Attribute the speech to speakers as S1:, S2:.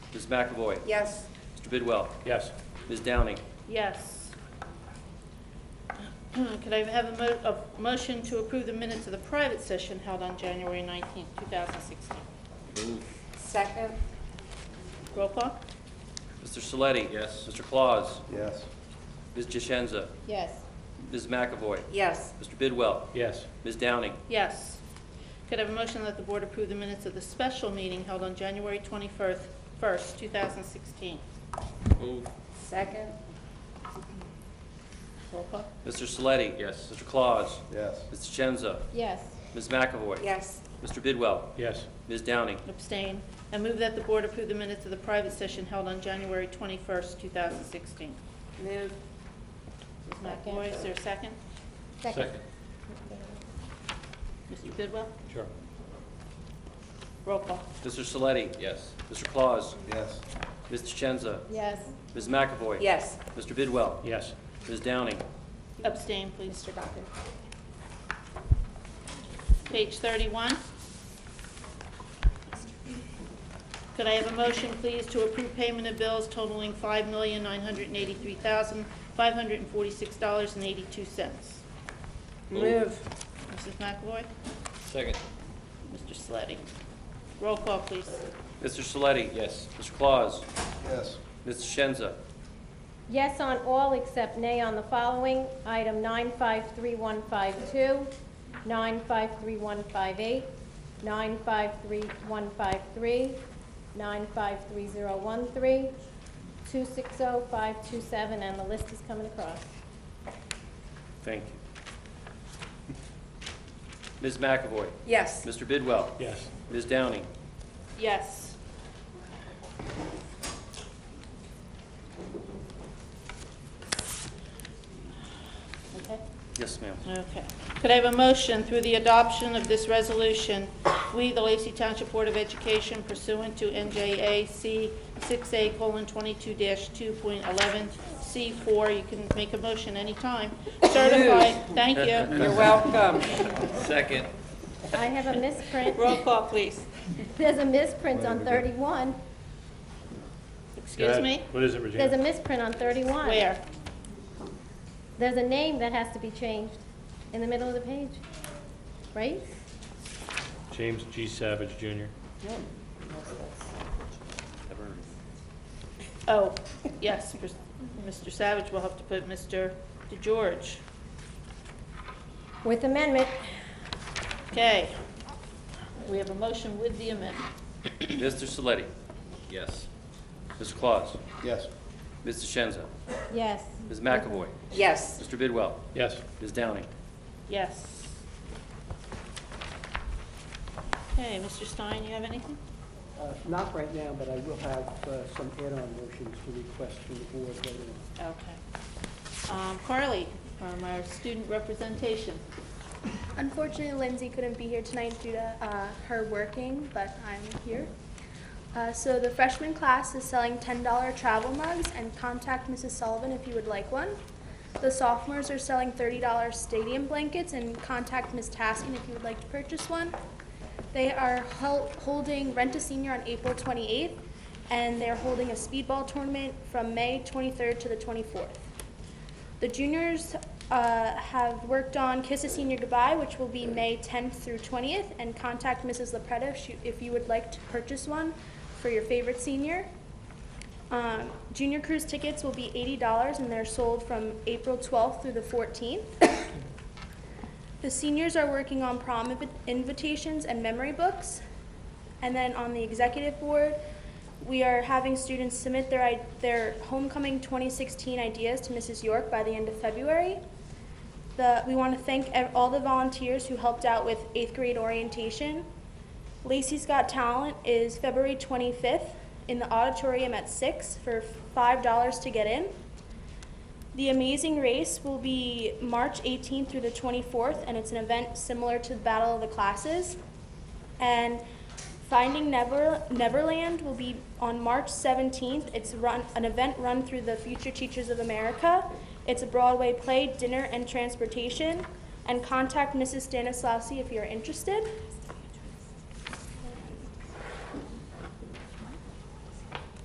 S1: Ms. McAvoy.
S2: Yes.
S1: Mr. Bidwell.
S3: Yes.
S1: Ms. Downing.
S4: Yes. Could I have a mo, a motion to approve the minutes of the private session held on January nineteenth, two thousand sixteen?
S2: Second?
S4: Roll call?
S1: Mr. Saletti.
S3: Yes.
S1: Mr. Claus.
S5: yes,
S1: Ms. Jeshenza.
S4: Yes.
S1: Ms. McAvoy.
S2: Yes.
S1: Mr. Bidwell.
S3: Yes.
S1: Ms. Downing.
S4: Yes. Could I have a motion that the board approve the minutes of the special meeting held on January twenty-first, first, two thousand sixteen?
S3: Move.
S2: Second?
S4: Roll call?
S1: Mr. Saletti.
S3: Yes.
S1: Mr. Claus.
S5: yes,
S1: Ms. Jeshenza.
S4: Yes.
S1: Ms. McAvoy.
S2: Yes.
S1: Mr. Bidwell.
S3: Yes.
S1: Ms. Downing.
S4: Abstain. I move that the board approve the minutes of the private session held on January twenty-first, two thousand sixteen.
S2: Move?
S4: Ms. McAvoy, is there a second?
S3: Second.
S4: Mr. Bidwell?
S3: Sure.
S4: Roll call?
S1: Mr. Saletti.
S3: Yes.
S1: Mr. Claus.
S5: yes,
S1: Ms. Jeshenza.
S4: Yes.
S1: Ms. McAvoy.
S2: Yes.
S1: Mr. Bidwell.
S3: Yes.
S1: Ms. Downing.
S4: Abstain, please.
S2: Mr. Duffy?
S4: Page 31. Could I have a motion, please, to approve payment of bills totaling $5,983,546.82?
S2: Move?
S4: Mrs. McAvoy?
S3: Second.
S4: Mr. Sleddy? Roll call, please.
S1: Mr. Saletti.
S3: Yes.
S1: Mr. Claus.
S5: yes,
S1: Ms. Jeshenza.
S6: Yes on all except nay on the following. Item 953152, 953158, 953153, 953013, 260527, and the list is coming across.
S1: Thank you. Ms. McAvoy.
S2: Yes.
S1: Mr. Bidwell.
S3: Yes.
S1: Ms. Downing.
S4: Yes. Okay.
S1: Yes, ma'am.
S4: Okay. Could I have a motion through the adoption of this resolution, we, the Lacey Township Board of Education pursuant to NJAC 6A:22-2.11C4, you can make a motion anytime, certify, thank you.
S2: You're welcome.
S3: Second.
S6: I have a misprint.
S4: Roll call, please.
S6: There's a misprint on 31.
S4: Excuse me?
S3: What is it,
S6: There's a
S3: Regina?
S6: misprint on 31.
S4: Where?
S6: There's a name that has to be changed in the middle of the page, right?
S3: James G. Savage Jr.
S4: Oh, yes, Mr. Savage will have to put Mr. DeGeorge.
S6: With amendment,
S4: Okay. We have a motion with the amendment.
S1: Mr. Saletti.
S3: Yes.
S1: Mr. Claus.
S5: yes,
S1: Ms. DeShenza.
S6: yes.
S1: Ms. McAvoy.
S2: Yes.
S1: Mr. Bidwell.
S3: Yes.
S1: Ms. Downing.
S4: Yes. Okay, Mr. Stein, you have anything?
S7: Uh, Not right now, but I will have uh, some add-on motions to request from the board later on.
S4: Okay. Um, Carly, from our student representation.
S8: Unfortunately, Lindsay couldn't be here tonight due to uh, her working, but I'm here. Uh, So the freshman class is selling $10 travel mugs, and contact Mrs. Sullivan if you would like one. The sophomores are selling $30 stadium blankets, and contact Ms. Taskin if you would like to purchase one. They are hel- holding Rent a Senior on April 28th, and they're holding a speedball tournament from May 23rd to the 24th. The juniors uh, have worked on Kiss a Senior Goodbye, which will be May 10th through 20th, and contact Mrs. Lepretta if you- if you would like to purchase one for your favorite senior. Um, Junior cruise tickets will be $80, and they're sold from April 12th through the 14th. The seniors are working on prom invi- invitations and memory books. And then on the executive board, we are having students submit their, i- their homecoming 2016 ideas to Mrs. York by the end of February. The, we want to thank ev- all the volunteers who helped out with eighth grade orientation. Lacey's Got Talent is February 25th in the auditorium at 6 for $5 to get in. The Amazing Race will be March 18th through the 24th, and it's an event similar to the Battle of the Classes. And Finding Never, Neverland will be on March 17th. It's run, an event run through the Future Teachers of America. It's a Broadway play, dinner, and transportation. And contact Mrs. Stanislavski if you're interested.